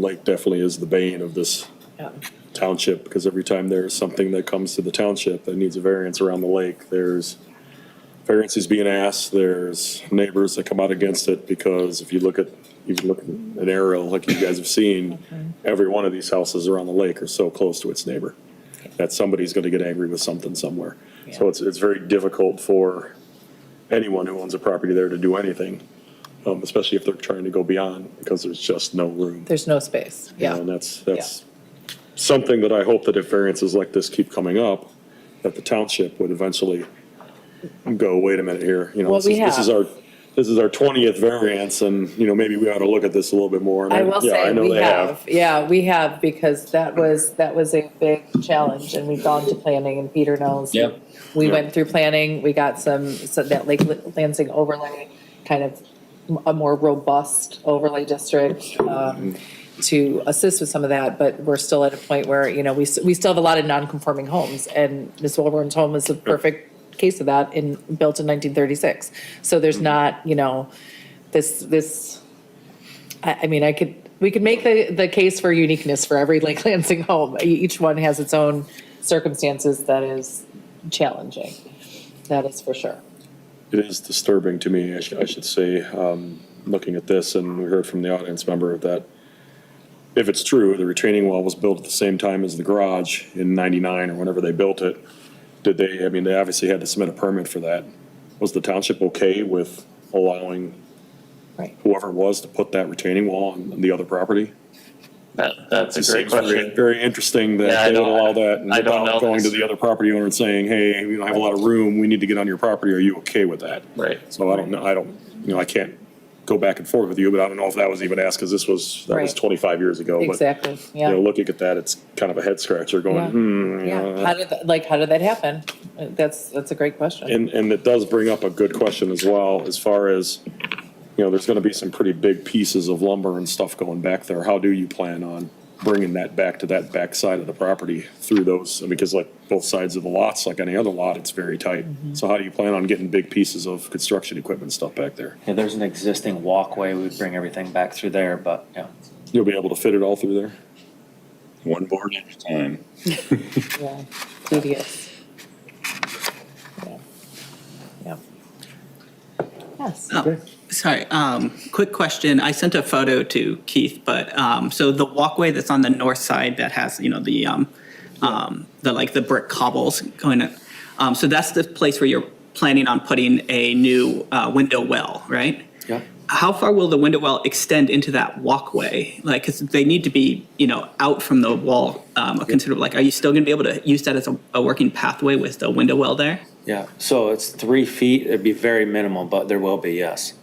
Lake definitely is the bane of this township, because every time there's something that comes to the township that needs a variance around the lake, there's variances being asked, there's neighbors that come out against it, because if you look at, if you look at an aerial like you guys have seen, every one of these houses around the lake are so close to its neighbor, that somebody's gonna get angry with something somewhere. So it's, it's very difficult for anyone who owns a property there to do anything, um, especially if they're trying to go beyond, because there's just no room. There's no space, yeah. And that's, that's something that I hope that if variances like this keep coming up, that the township would eventually go, wait a minute here, you know, Well, this is, we this is have. our, this is our twentieth variance and, you know, maybe we ought to look at this a little bit more. And I will yeah, say, know we they have, yeah, we have, because that was, that was a big challenge, and we've gone to planning, and Peter knows. Yep. We went through planning, we got some, so that Lake Lansing overlay, kind of a more robust overlay district, um, to assist with some of that, but we're still at a point where, you know, we, s- we still have a lot of non-conforming homes, and Ms. Wilburn's home is the perfect case of that, in, built in nineteen thirty-six. So there's not, you know, this, this, I, I mean, I could, we could make the, the case for uniqueness for every Lake Lansing home. E- Each one has its own circumstances that is challenging. That is for sure. It is disturbing to me, I should, I should say, um, looking at this, and we heard from the audience member that if it's true, the retaining wall was built at the same time as the garage in ninety-nine or whenever they built it. Did they, I mean, they obviously had to submit a permit for that. Was the township okay with allowing Right. whoever it was to put that retaining wall on the other property? That, that's It a great seems very- question. Very interesting Yeah, I that they would don't- allow that and I don't without know going to this. the other property owner and saying, hey, we don't have a lot of room, we need to get on your property, are you okay with that? Right. So I don't know, I don't, you know, I can't go back and forth with you, but I don't know if that was even asked, because this was, that was Right. twenty-five years ago. but, Exactly, You know, yeah. looking at that, it's kind of a head scratcher Yeah. going, hmm. you know, Yeah. How did, that- like, how did that happen? Uh, That's, that's a great question. And, and it does bring up a good question as well, as far as, you know, there's gonna be some pretty big pieces of lumber and stuff going back there. How do you plan on bringing that back to that back side of the property through those? Because like both sides of the lots, like any other lot, it's very tight. So how do you plan on getting big pieces of construction equipment and stuff back there? Yeah, there's an existing walkway, we'd bring everything back through there, but, yeah. You'll be able to fit it all through there? One board at a time. Yeah, tedious. Yeah. Yeah. Yes, Oh, Sorry, um, quick question. I sent a photo to Keith, but, um, so the walkway that's on the north side that has, you know, the, um, um, the, like, the brick cobbles going, in, um, so that's the place where you're planning on putting a new, uh, window well, right? Yeah. How far will the window well extend into that walkway? Like, 'cause they need to be, you know, out from the wall, um, a considerable, like, are you still gonna be able to use that as a, a working pathway with the window well there? Yeah, so it's three feet, it'd be very minimal, but there will be, yes.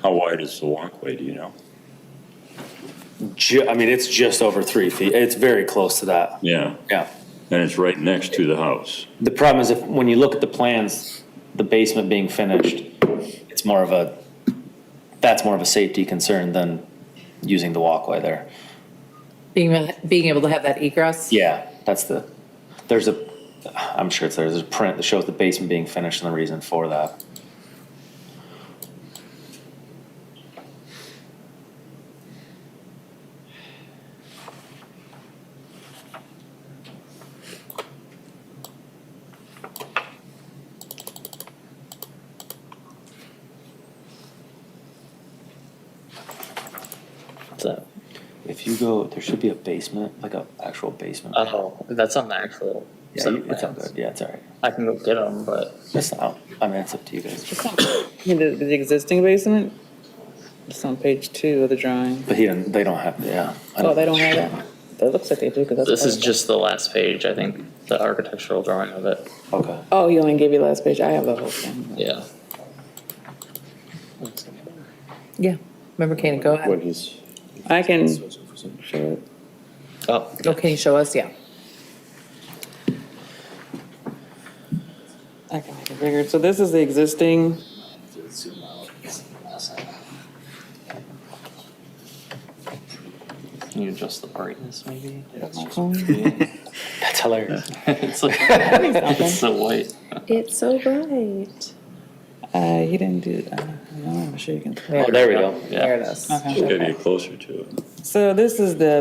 How wide is the walkway, do you know? Ju, I mean, it's just over three feet, it's very close to that, Yeah, yeah. and it's right next to the house. The problem is if, when you look at the plans, the basement being finished, it's more of a, that's more of a safety concern than using the walkway there. being, uh, being able to have that egress. Yeah, that's the, there's a, I'm sure it's there, there's a print that shows the basement being finished and the reason for that. So, If you go, there should be a basement, like a actual basement. Uh, oh, that's on the actual. Yeah, set you- of it's all plans. good. Yeah, it's all right. I can go get them, but It's not, I mean, it's up to you guys. In The, the existing basement? It's on page two of the drawing. But he didn't, they don't have, yeah. I Oh, they don't have that? It looks like they do, because that's. this part is of it. just the last page, I think, the architectural drawing of it. Okay. Oh, you only gave you last page. I have the whole thing. Yeah. Yeah. Remember, can you go When ahead? he's. I can show it. Oh, Oh, can you show us? Yeah. I can make it bigger. So this is the existing, can you adjust the brightness maybe? That's hilarious. It's like, it's so white. It's so bright. Uh, he didn't do, uh, no, I'm sure you can. Oh, there we go. Yeah. Uh, There it is. Okay. Gotta get closer to it. So this is the